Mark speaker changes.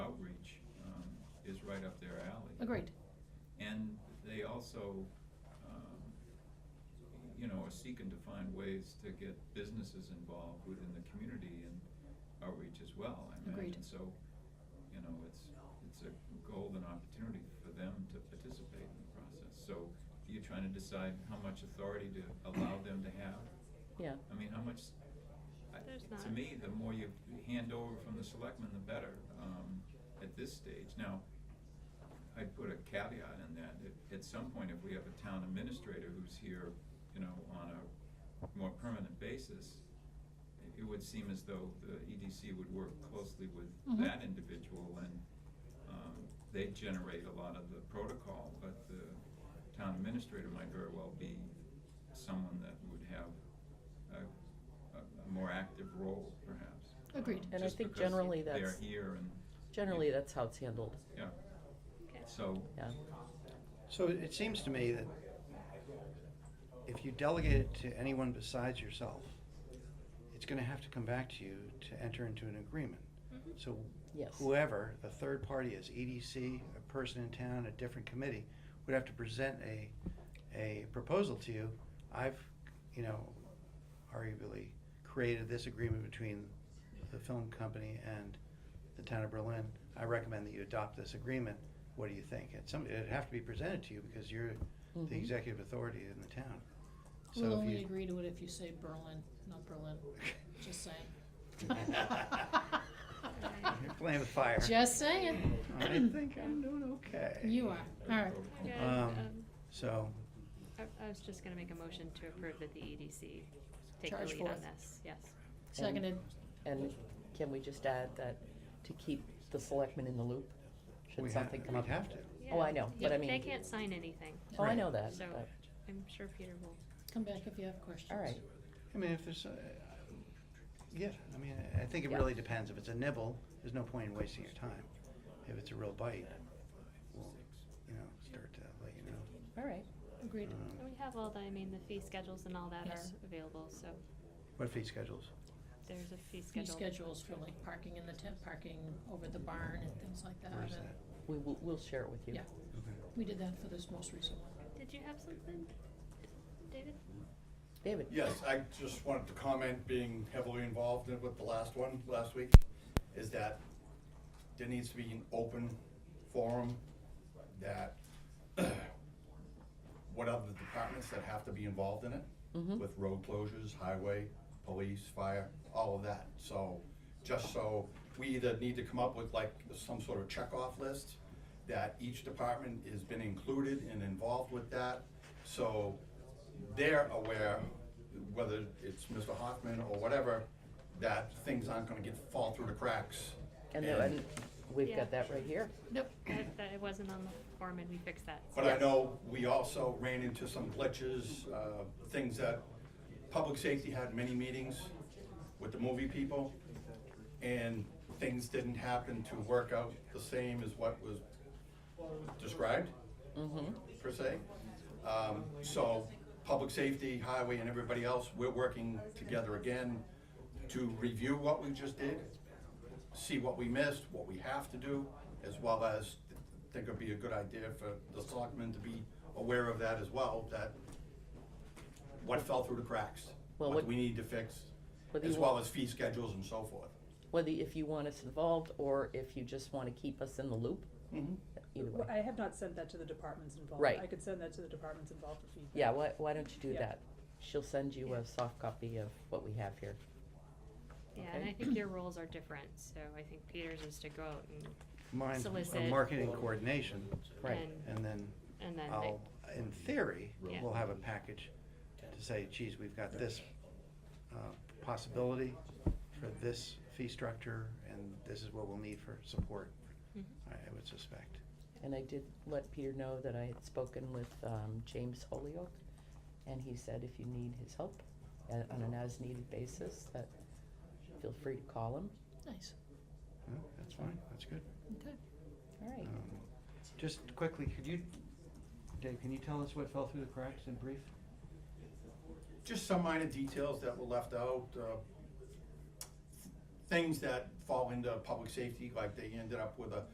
Speaker 1: um,
Speaker 2: Agreed.
Speaker 1: And they also, um, you know, are seeking to find ways to get businesses involved within the community and outreach as well, I imagine.
Speaker 2: Agreed.
Speaker 1: So, you know, it's, it's a golden opportunity for them to participate in the process. So you're trying to decide how much authority to allow them to have?
Speaker 3: Yeah.
Speaker 1: I mean, how much, I-
Speaker 4: There's
Speaker 1: to
Speaker 4: not.
Speaker 1: me, the more you hand over from the selectmen, the better, um, at this stage. Now, I'd put a caveat in that, that at some point, if we have a town administrator who's here, you know, on a more permanent basis, it- it would seem as though the EDC would work closely with
Speaker 2: Mhm.
Speaker 4: Mm-hmm.
Speaker 1: that individual, and um, they generate a lot of the protocol, but the town administrator might very well be someone that would have a, a a more active role, perhaps.
Speaker 2: Agreed.
Speaker 1: Um,
Speaker 2: And I
Speaker 1: just
Speaker 3: think
Speaker 1: because
Speaker 3: generally that's-
Speaker 1: They're here and.
Speaker 3: Generally, that's how it's handled.
Speaker 1: Yeah,
Speaker 4: Okay.
Speaker 1: so,
Speaker 3: Yeah.
Speaker 5: So it seems to me that if you delegate it to anyone besides yourself, it's gonna have to come back to you to enter into an agreement.
Speaker 4: Mhm.
Speaker 5: So
Speaker 3: Yes.
Speaker 5: whoever the third party is, EDC, a person in town, a different committee, would have to present a, a proposal to you. I've, you know, arguably created this agreement between the film company and the town of Berlin. I recommend that you adopt this agreement. What do you think? It's some, it'd have to be presented to you because you're
Speaker 3: Mhm.
Speaker 5: the executive authority in the town. So
Speaker 2: We'll
Speaker 5: if
Speaker 2: only
Speaker 5: you-
Speaker 2: agree to it if you say Berlin, not Berlin. Just saying.
Speaker 5: You're playing with fire.
Speaker 2: Just saying.
Speaker 5: I think I'm doing okay.
Speaker 2: You are. All right.
Speaker 4: Okay,
Speaker 5: Um,
Speaker 4: um,
Speaker 5: So,
Speaker 4: I I was just gonna make a motion to approve that the EDC take the
Speaker 2: Charge
Speaker 4: lead on
Speaker 2: forth.
Speaker 4: this, yes.
Speaker 5: Um,
Speaker 2: Seconded.
Speaker 3: And can we just add that to keep the selectmen in the loop? Should
Speaker 5: we have,
Speaker 3: something come
Speaker 5: we'd
Speaker 3: up?
Speaker 5: have to.
Speaker 3: Oh, I know, but I
Speaker 4: They
Speaker 3: mean-
Speaker 4: can't sign anything,
Speaker 3: Oh, I
Speaker 5: Right.
Speaker 3: know that.
Speaker 4: so
Speaker 3: but-
Speaker 4: I'm sure Peter will.
Speaker 2: Come back if you have questions.
Speaker 3: All right.
Speaker 5: I mean, if there's, uh, yeah, I mean, I think it
Speaker 3: Yeah.
Speaker 5: really depends. If it's a nibble, there's no point in wasting your time. If it's a real bite, we'll, you know, start to let you know.
Speaker 3: All right.
Speaker 2: Agreed.
Speaker 4: And
Speaker 5: Um,
Speaker 4: we have all the, I mean, the fee schedules and all that
Speaker 2: Yes.
Speaker 4: are available, so
Speaker 5: What fee schedules?
Speaker 4: there's a
Speaker 2: Fee
Speaker 4: fee schedule.
Speaker 2: schedules for like parking in the tent, parking over the barn and things
Speaker 4: uh,
Speaker 2: like that.
Speaker 5: Where's that?
Speaker 3: We will, we'll share it with you.
Speaker 2: Yeah,
Speaker 5: Okay.
Speaker 2: we did that for this most recent one.
Speaker 4: Did you have something, David?
Speaker 3: David?
Speaker 6: Yes, I just wanted to comment, being heavily involved in- with the last one, last week, is that there needs to be an open forum that, what are the departments that have to be involved in it?
Speaker 3: Mm-hmm.
Speaker 6: With road closures, highway, police, fire, all of that. So, just so, we either need to come up with like some sort of checkoff list that each department has been included and involved with that. So they're aware, whether it's Mr. Hoffman or whatever, that things aren't gonna get, fall through the cracks.
Speaker 3: And, the- and we've got that right here.
Speaker 2: Nope.
Speaker 4: That, that it wasn't on the form and we fixed that.
Speaker 6: But I know we also ran into some glitches, uh, things that, public safety had many meetings with the movie people, and things didn't happen to work out the same as what was described, per se. Um, So, public safety, highway, and everybody else, we're working together again to review what we just did, see what we missed, what we have to do, as well as, I think it'd be a good idea for the selectmen to be aware of that as well, that what fell through the cracks,
Speaker 3: Well,
Speaker 6: what
Speaker 3: what-
Speaker 6: we need to fix,
Speaker 3: Whether
Speaker 6: as
Speaker 3: you
Speaker 6: well
Speaker 3: want-
Speaker 6: as fee schedules and so forth.
Speaker 3: Whether, if you want us involved or if you just want to keep us in the loop.
Speaker 5: Mm-hmm.
Speaker 3: Either
Speaker 7: Well,
Speaker 3: way.
Speaker 7: I have not sent that to the departments involved.
Speaker 3: Right.
Speaker 7: I could send that to the departments involved for feedback.
Speaker 3: Yeah, why, why don't you do
Speaker 7: Yeah.
Speaker 3: that? She'll send you
Speaker 7: Yeah.
Speaker 3: a soft copy of what we have here.
Speaker 4: Yeah, and I think your roles are different, so I think Peter's is to go out and,
Speaker 5: Mine,
Speaker 4: Solicit.
Speaker 5: uh, marketing coordination,
Speaker 3: Right.
Speaker 4: and,
Speaker 5: and then
Speaker 4: and then they-
Speaker 5: I'll, in theory,
Speaker 4: Yeah.
Speaker 5: we'll have a package to say, geez, we've got this uh, possibility for this fee structure, and this is what we'll need for support,
Speaker 4: Mhm.
Speaker 5: I I would suspect.
Speaker 3: And I did let Peter know that I had spoken with um, James Holyoke, and he said if you need his help uh, on an as-needed basis, that feel free to call him.
Speaker 2: Nice.
Speaker 5: No, That's fine, that's good.
Speaker 2: Okay.
Speaker 3: All right.
Speaker 5: Um, Just quickly, could you, Dave, can you tell us what fell through the cracks in brief?
Speaker 6: just some minor details that were left out, uh, things that fall into public safety, like they ended up with a